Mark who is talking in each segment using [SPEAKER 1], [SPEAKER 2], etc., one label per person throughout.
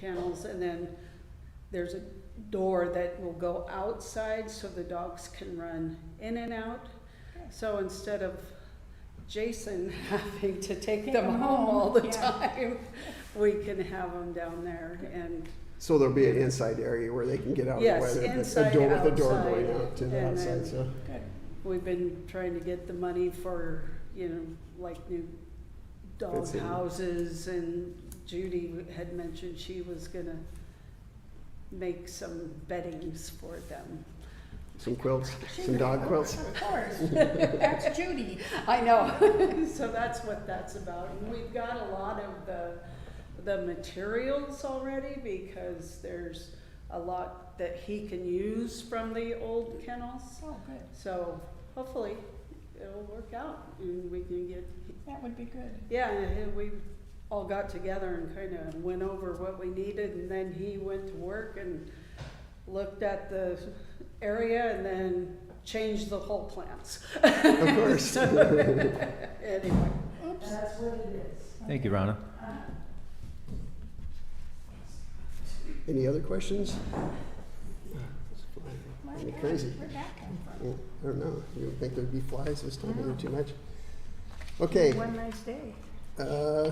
[SPEAKER 1] kennels, and then there's a door that will go outside so the dogs can run in and out. So instead of Jason having to take them home all the time, we can have them down there and,
[SPEAKER 2] So there'll be an inside area where they can get out
[SPEAKER 1] Yes,
[SPEAKER 2] of the weather.
[SPEAKER 1] inside,
[SPEAKER 2] a door with a door
[SPEAKER 1] outside,
[SPEAKER 2] going out to the
[SPEAKER 1] and
[SPEAKER 2] outside.
[SPEAKER 1] then-
[SPEAKER 2] So
[SPEAKER 3] Good.
[SPEAKER 1] We've been trying to get the money for, you know, like new dog
[SPEAKER 2] That's it.
[SPEAKER 1] houses and Judy had mentioned she was gonna make some beddings for them.
[SPEAKER 2] some quilts, some dog quilts.
[SPEAKER 3] Of course. That's Judy.
[SPEAKER 1] I know, so that's what that's about. And we've got a lot of the, the materials already because there's a lot that he can use from the old kennels.
[SPEAKER 3] Oh, good.
[SPEAKER 1] So hopefully it'll work out and we can get
[SPEAKER 3] That would be good.
[SPEAKER 1] Yeah, and we all got together and kind of went over what we needed, and then he went to work and looked at the area and then changed the whole plants.
[SPEAKER 2] Of course.
[SPEAKER 1] Anyway,
[SPEAKER 3] Oops.
[SPEAKER 1] that's what it is.
[SPEAKER 4] Thank you, Rhonda.
[SPEAKER 2] Any other questions?
[SPEAKER 3] My
[SPEAKER 2] Isn't it
[SPEAKER 3] God,
[SPEAKER 2] crazy?
[SPEAKER 3] Where'd that come
[SPEAKER 2] I
[SPEAKER 3] from?
[SPEAKER 2] don't know. You don't think there'd be flies this time of year too much? Okay,
[SPEAKER 3] One nice day.
[SPEAKER 2] uh,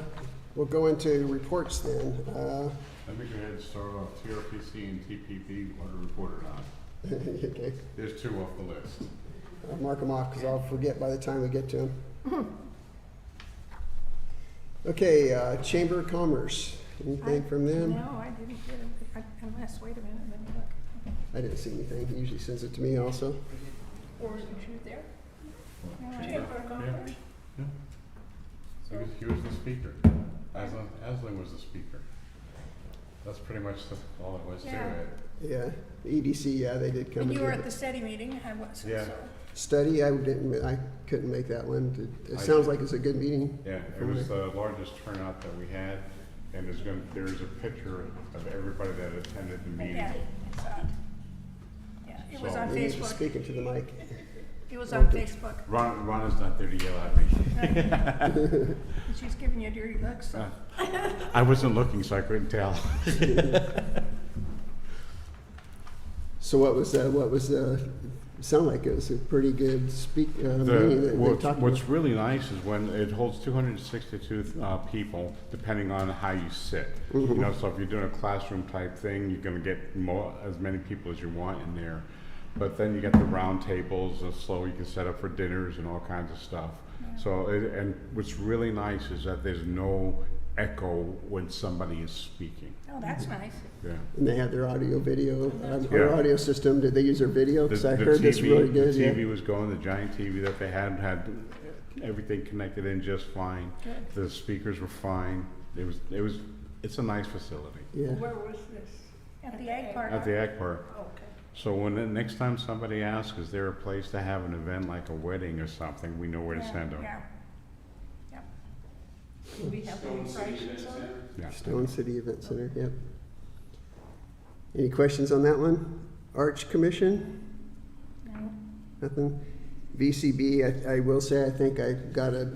[SPEAKER 2] we'll go into reports then. Uh,
[SPEAKER 5] Let me go ahead and start off TRPC and TPP, what to report or not.
[SPEAKER 2] okay,
[SPEAKER 5] There's two off the list.
[SPEAKER 2] I'll mark them off because I'll forget by the time we get to them.
[SPEAKER 3] Mm-hmm.
[SPEAKER 2] Okay, uh, Chamber of Commerce. Anything from them?
[SPEAKER 3] No, I didn't get it. I- Unless, wait a minute, let me look.
[SPEAKER 2] I didn't see anything. He usually sends it to me also.
[SPEAKER 3] Or is it there? No, I
[SPEAKER 5] Yeah.
[SPEAKER 3] didn't go
[SPEAKER 5] Yeah.
[SPEAKER 3] there.
[SPEAKER 5] Yeah. He was, he was the speaker. Aslan, Aslan was the speaker. That's pretty much the, all it was to
[SPEAKER 3] Yeah.
[SPEAKER 5] it.
[SPEAKER 2] Yeah, the EDC, yeah, they did come
[SPEAKER 3] And
[SPEAKER 2] and
[SPEAKER 3] you
[SPEAKER 2] do
[SPEAKER 3] were at
[SPEAKER 2] a
[SPEAKER 3] the SETI meeting, I was, so.
[SPEAKER 5] Yeah.
[SPEAKER 2] study. I didn't, ma- I couldn't make that one. It- It
[SPEAKER 5] I
[SPEAKER 2] sounds
[SPEAKER 5] did.
[SPEAKER 2] like it's a good meeting.
[SPEAKER 5] Yeah, it was the largest turnout that we had, and there's gonna, there's a picture of everybody that attended the meeting.
[SPEAKER 3] Yeah, I saw it. Yeah, it was
[SPEAKER 5] So-
[SPEAKER 3] on
[SPEAKER 2] Maybe he's just
[SPEAKER 3] Facebook.
[SPEAKER 2] Speaking to the mic.
[SPEAKER 3] It was on Facebook.
[SPEAKER 5] Ron, Ron is not there to yell at me.
[SPEAKER 3] And She's giving you dirty looks, so.
[SPEAKER 5] I wasn't looking, so I couldn't tell.
[SPEAKER 2] So what was, uh, what was, uh, sound like it was a pretty good speak, uh, meeting
[SPEAKER 5] The,
[SPEAKER 2] that they
[SPEAKER 5] what's,
[SPEAKER 2] talked about.
[SPEAKER 5] what's really nice is when it holds two hundred and sixty-two, uh, people, depending on how you sit. You
[SPEAKER 2] Mm-hmm.
[SPEAKER 5] know, so if you're doing a classroom type thing, you're gonna get more, as many people as you want in there. But then you get the round tables, uh, so you can set up for dinners and all kinds of stuff. So, it- and what's really nice is that there's no echo when somebody is speaking,
[SPEAKER 3] Oh, that's nice.
[SPEAKER 5] yeah.
[SPEAKER 2] And they had their audio, video, um, their
[SPEAKER 5] Yeah.
[SPEAKER 2] audio system. Did they use their video?
[SPEAKER 5] The-
[SPEAKER 2] Because I
[SPEAKER 5] the
[SPEAKER 2] heard this
[SPEAKER 5] TV
[SPEAKER 2] really good,
[SPEAKER 5] The TV
[SPEAKER 2] yeah.
[SPEAKER 5] was going, the giant TV that they had, had everything connected in just fine.
[SPEAKER 3] Good.
[SPEAKER 5] The speakers were fine. It was, it was, it's a nice facility
[SPEAKER 2] Yeah,
[SPEAKER 6] Where was this?
[SPEAKER 3] At the egg park.
[SPEAKER 5] at the Ag Park.
[SPEAKER 6] Okay.
[SPEAKER 5] So when, the next time somebody asks, is there a place to have an event like a wedding or something, we know where to
[SPEAKER 3] Yeah,
[SPEAKER 5] send them.
[SPEAKER 3] Yeah.
[SPEAKER 6] Do we have any prices on it?
[SPEAKER 5] Yeah.
[SPEAKER 2] Stone City Event Center, yep. Any questions on that one? Arch Commission?
[SPEAKER 3] No.
[SPEAKER 2] Nothing. VCB, I, I will say, I think I got a,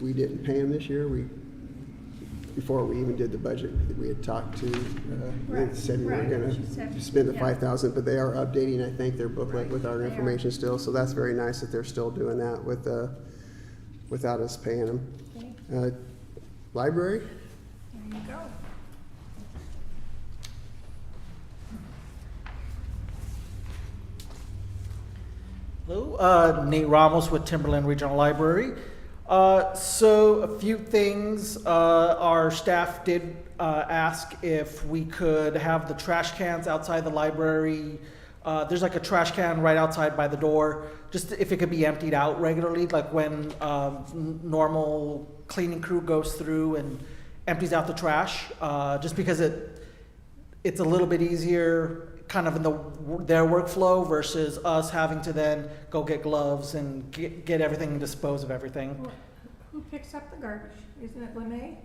[SPEAKER 2] we didn't pay him this year, we, before we even did the budget, we had talked to, uh, they
[SPEAKER 3] Right,
[SPEAKER 2] said we were
[SPEAKER 3] right,
[SPEAKER 2] gonna
[SPEAKER 3] she said,
[SPEAKER 2] spend the
[SPEAKER 3] yeah.
[SPEAKER 2] five thousand, but they are updating, I think, their booklet
[SPEAKER 6] Right,
[SPEAKER 2] with our
[SPEAKER 3] they are.
[SPEAKER 2] information still, so that's very nice that they're still doing that with, uh, without us paying them.
[SPEAKER 3] Okay,
[SPEAKER 2] Uh, library,
[SPEAKER 3] there you go.
[SPEAKER 7] Hello, uh, Nate Ramos with Timberland Regional Library. Uh, so, a few things. Uh, our staff did uh, ask if we could have the trash cans outside the library. Uh, there's like a trash can right outside by the door, just if it could be emptied out regularly, like when um, n- normal cleaning crew goes through and empties out the trash, uh, just because it it's a little bit easier kind of in the their workflow versus us having to then go get gloves and get, get everything and dispose of everything
[SPEAKER 3] Who- Who picks up the garbage? Isn't it Lemay?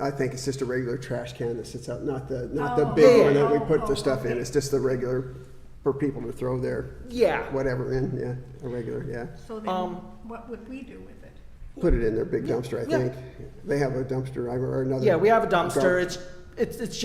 [SPEAKER 2] I, I think it's just a regular trash can that sits out, not the, not the
[SPEAKER 3] Oh,
[SPEAKER 2] big
[SPEAKER 7] yeah.
[SPEAKER 2] one that we
[SPEAKER 3] Oh,
[SPEAKER 2] put
[SPEAKER 3] oh,
[SPEAKER 2] the stuff in,
[SPEAKER 3] okay.
[SPEAKER 2] it's just the regular, for people to throw their
[SPEAKER 7] yeah
[SPEAKER 2] whatever in, yeah, a regular, yeah.
[SPEAKER 3] So then,
[SPEAKER 7] Um,
[SPEAKER 3] what would we do with it?
[SPEAKER 2] Put it in their big dumpster, I
[SPEAKER 7] Yeah.
[SPEAKER 2] think. They have a dumpster, I- or another.
[SPEAKER 7] yeah we have a dumpster
[SPEAKER 2] gar-
[SPEAKER 7] it's it's it's